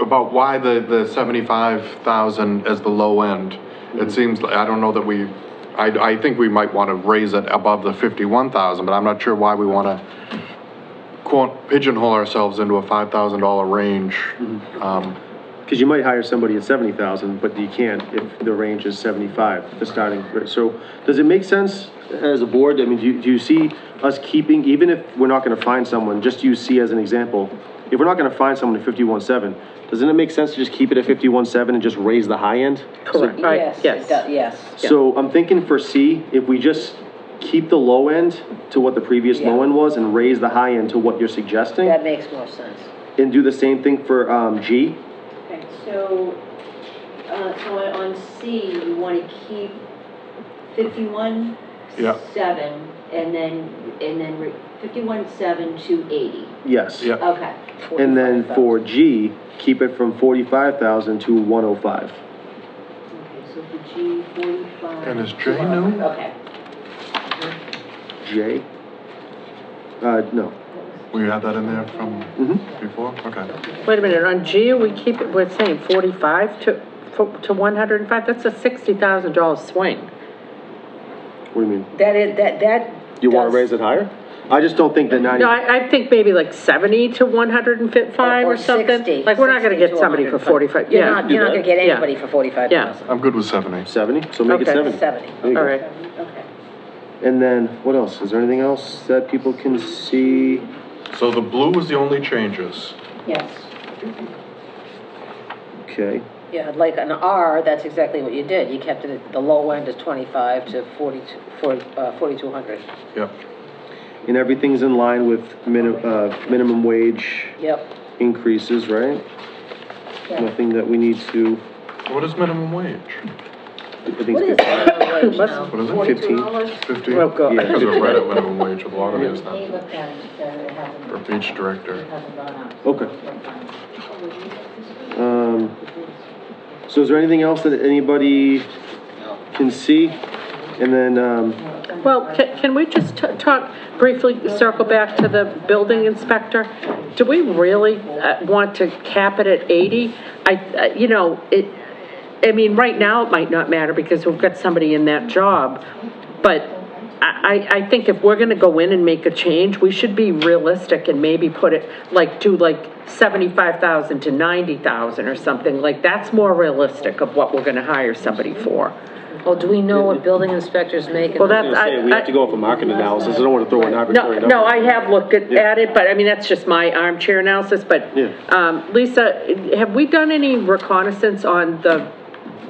about why the, the seventy-five thousand as the low end. It seems, li- I don't know that we, I, I think we might want to raise it above the fifty-one thousand, but I'm not sure why we want to quote pigeonhole ourselves into a five thousand dollar range. Um, Because you might hire somebody at seventy thousand, but you can't if the range is seventy-five, the starting, rate. so, does it make sense as a board, I mean, do you, do you see us keeping, even if we're not gonna find someone, just you see as an example, if we're not gonna find someone at fifty-one seven, doesn't it make sense to just keep it at fifty-one seven and just raise the high end? Correct. I- Yes, it does, yes. So I'm thinking for C, if we just keep the low end to what the previous low Yeah. end was and raise the high end to what you're suggesting, That makes more sense. and do the same thing for, um, G, Okay, so, uh, so on on C, you wanna keep fifty-one, Yeah. seven, and then, and then fifty-one, seven to eighty. yes. Yeah. Okay, And then for G, keep it from forty-five thousand to one oh five. okay, so for G, forty-five. And is J new? Okay. J? Uh, no. We had that in there from Mhm. before, okay. Wait a minute, on G, we keep, it. we're saying 45 to, fo- to 105, that's a $60,000 swing. What do you mean? That is, that, that. You wanna does- raise it higher? I just don't think that ninety, No, I, I think maybe like 70 to 105 Or- or or something. 60, Like, we're not gonna 60 get to somebody for 105. 45, You're yeah. not, you're not gonna get Yeah. anybody for forty-five thousand. I'm good with seventy. seventy, so make it Okay. seventy. Seventy. There you All go. right. Okay. And then, what else? Is there anything else that people can see? So the blue was the only changes. Yes. Okay, Yeah, like an R, that's exactly what you did. You kept it, at the low end is twenty-five to forty-two, for, uh, forty-two hundred. Yep. and everything's in line with minimum, uh, minimum wage Yep. increases, right? Yeah. Nothing that we need to, What is minimum wage? I think What is it's minimum wage Let's- now? What is it, fifteen. fifty? Oh, God. I think there's a red at minimum wage, a lot of it is not, looked at it together, it hasn't, for each director. hasn't gone up. Okay. Um, so is there anything else that anybody can see? And then, um, Well, can, can we just t- talk briefly, circle back to the building inspector? Do we really uh, want to cap it at 80? I, I- you know, it, I mean, right now, it might not matter because we've got somebody in that job, but I, I, I think if we're gonna go in and make a change, we should be realistic and maybe put it, like, do like 75,000 to 90,000 or something, like, that's more realistic of what we're gonna hire somebody for. Well, do we know what building inspectors make? and Well, not? that's, I. we have to I- go off a market analysis, I don't wanna throw an arbitrary No, number. no, I have looked at, Yeah. at it, but I mean, that's just my armchair analysis, but, Yeah. um, Lisa, have we done any reconnaissance on the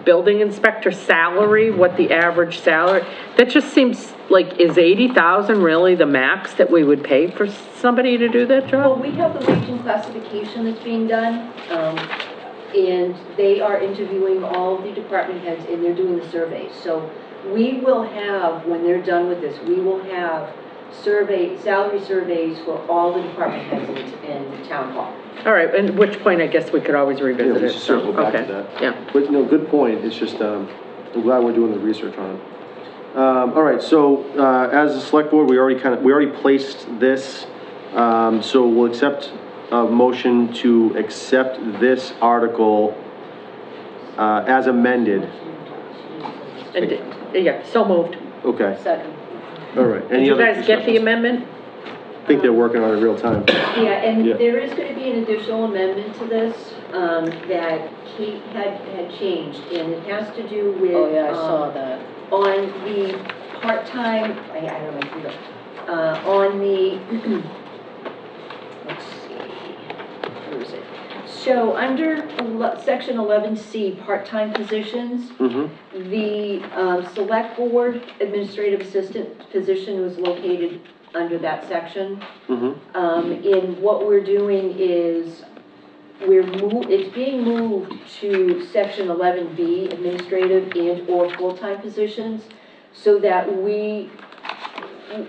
building inspector salary, what the average salary? That just seems like, is eighty thousand really the max that we would pay for somebody to do that Well, job? we have the wage and classification that's being done, um, and they are interviewing all the department heads, and they're doing the surveys. So we will have, when they're done with this, we will have survey, salary surveys for all the department heads in, in the town hall. All right, and which point, I guess we could always Yeah, revisit we it. should circle back to Okay, that. Yeah, But, no, good point, it's just, um, I'm glad we're doing the research on it. Um, all right, so, uh, as a select board, we already kinda, we already placed this, um, so we'll accept a motion to accept this article, uh, as amended. and, yeah, so moved. Okay, Second. all right. Did you guys get the amendment? I think they're working on it real time. Yeah, and Yeah. there is going to be an additional amendment to this um, that Kate had, had changed, and it has to do with. Oh, yeah, I um, saw that. on the part-time, I I don't know, if you know, uh, on the, let's see, where is it? So, under ele- section eleven C, part-time positions, Mhm. the um, select board administrative assistant position was located under that section. Mhm. Um, and what we're doing is, we're move, it's being moved to section eleven B, administrative and/or full-time positions, so that we,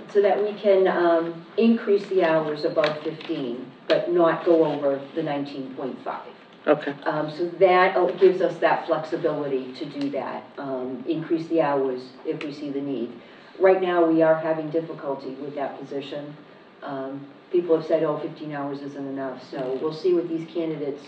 so that we can, um, increase the hours above fifteen, but not go over the nineteen point five. Okay, Um, so that uh, gives us that flexibility to do that, um, increase the hours if we see the need. Right now, we are having difficulty with that position. Um, people have said, oh, 15 hours isn't enough, so we'll see what these candidates